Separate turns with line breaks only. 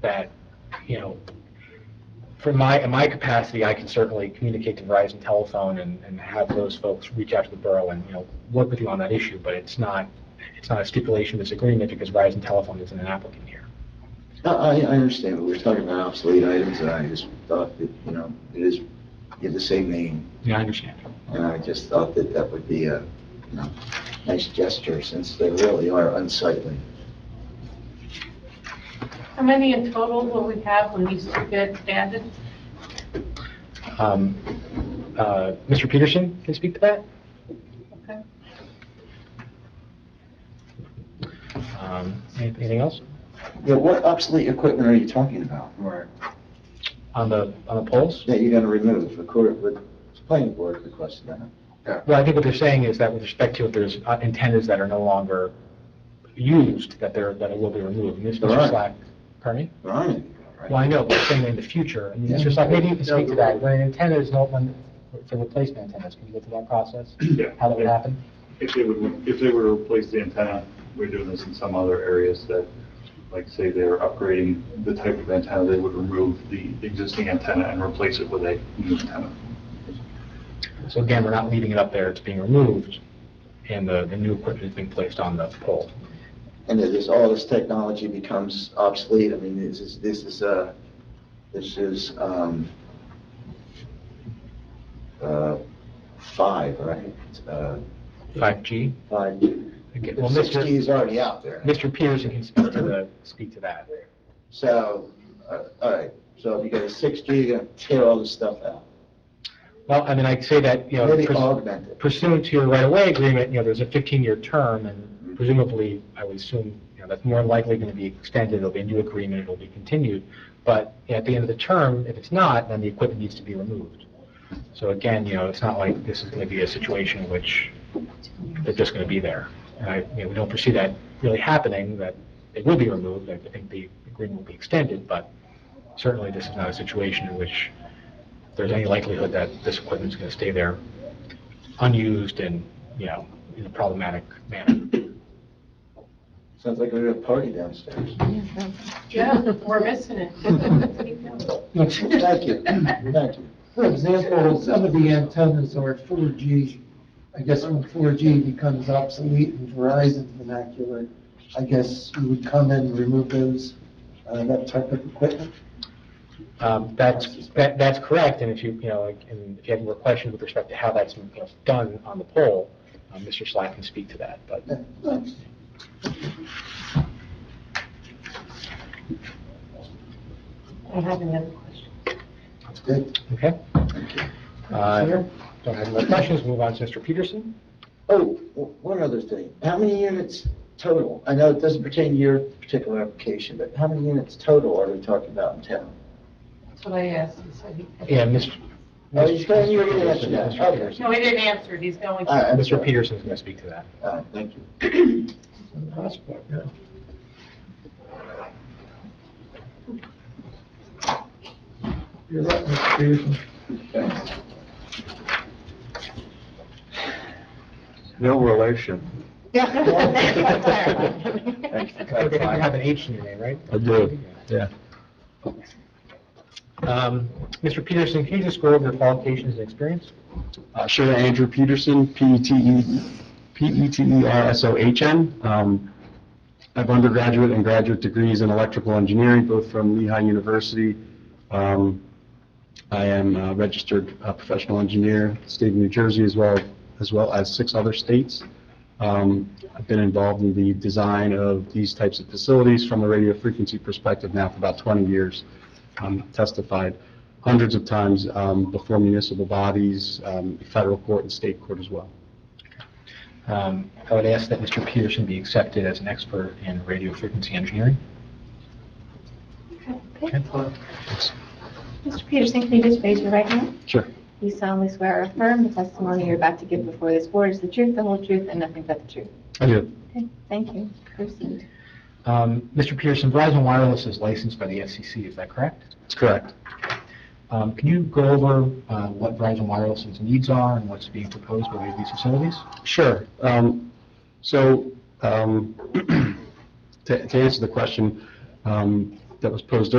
that, you know, from my, in my capacity, I can certainly communicate to Verizon Telephone and, and have those folks reach out to the borough and, you know, work with you on that issue, but it's not, it's not a stipulation of this agreement because Verizon Telephone isn't an applicant here.
I, I I understand, but we we're talking about obsolete items, and I just thought that, you know, it is, you have the same name,
Yeah, I understand.
and I just thought that that would be a, you know, nice gesture, since they really are unsightly.
How many in total will we have when these two get added?
Um, uh, Mr. Peterson can speak to that?
Okay.
Um, Anything else?
Yeah, what obsolete equipment are you talking about? Or
On the, on the polls?
that you're gonna remove, according with the planning board requested that.
Well, I think what they're saying is that with respect to if there's uh, antennas that are no longer used, that they're, that it will be removed. And this,
All right.
Mr. Slack, pardon me?
There aren't any,
Well,
right?
I know, but I'm saying in the future, and
Yeah.
Mr. Slack, maybe you can speak to that. When an antenna is no, when, for replacement antennas, can you go through that process?
Yeah.
How that would happen?
If they would, if they were to replace the antenna, we're doing this in some other areas that, like, say they're upgrading the type of antenna, they would remove the existing antenna and replace it with a new antenna.
So again, we're not leaving it up there, it's being removed, and the, the new equipment is being placed on the pole.
And that this, all this technology becomes obsolete, I mean, this is, this is, uh, this is, um, uh, five, right? Uh,
5G?
Five.
Okay, Well,
Six G
Mr.
is already out there.
Mr. Peterson can speak to the, speak to that.
So, uh, all right, so if you go to six G, you're gonna tear all this stuff out.
Well, I mean, I'd say that, you know.
Maybe
pers-
augment it.
pursuant to your right-of-way agreement, you know, there's a 15-year term, and presumably, I would assume, you know, that's more than likely going to be extended, there'll be a new agreement, it'll be continued, but at the end of the term, if it's not, then the equipment needs to be removed. So again, you know, it's not like this is going to be a situation in which they're just going to be there. And I, you know, we don't foresee that really happening, that it will be removed, I think the agreement will be extended, but certainly this is not a situation in which there's any likelihood that this equipment's going to stay there unused and, you know, in a problematic manner.
Sounds like we're at a party downstairs.
Yeah, we're missing it.
Thank you, thank you.
For example, some of the antennas are 4G. I guess when 4G becomes obsolete in Verizon vernacular, I guess you would come in and remove those, uh, that type of equipment.
Um, That's, that- that's correct, and if you, you know, like, and if you have more questions with respect to how that's you know, done on the poll, um, Mr. Slack can speak to that, but
Yeah, thanks.
I have another question.
That's good.
Okay. Uh, Don't have any more questions, move on to Mr. Peterson.
Oh, w- one other thing. How many units total? I know it doesn't pertain to your particular application, but how many units total are we talking about in town?
That's what I asked. He said he-
Yeah, Mr.
Oh, he's going, you're going to answer
Peterson,
that.
Mr.
Okay.
Peterson.
No, he didn't answer it. He's going.
All right, I'm
Mr.
sorry.
Peterson's going to speak to that.
All right, thank you.
You're right, Mr. Peterson.
No relation.
Thanks for
I think you
clarifying.
have an H in your name, right?
I do, yeah.
Um, Mr. Peterson, can you just go over your qualifications and experience?
Uh, Sure, Andrew Peterson, E P-E-T-E, E P-E-T-E-R-S-O-H-N. Um, I have undergraduate and graduate degrees in electrical engineering, both from Lehigh University. Um, I am a registered uh, professional engineer, state of New Jersey, as well, as well as six other states. Um, I've been involved in the design of these types of facilities from a radio frequency perspective now for about 20 years. Um, Testified hundreds of times um, before municipal bodies, um, federal court and state court as well.
Um, I would ask that Mr. Peterson be accepted as an expert in radio frequency engineering.
Okay. Mr. Peterson, can you just raise your right hand?
Sure.
You solemnly swear or affirm the testimony you're about to give before this board is the truth, the whole truth, and nothing but the truth.
I do.
Okay, thank you. Proceed.
Um, Mr. Peterson, Verizon Wireless is licensed by the FCC, is that correct?
That's correct.
Um, Can you go over uh, what Verizon Wireless's needs are and what's being proposed by these facilities?
Sure. Um, So um, to to answer the question, um, that was posed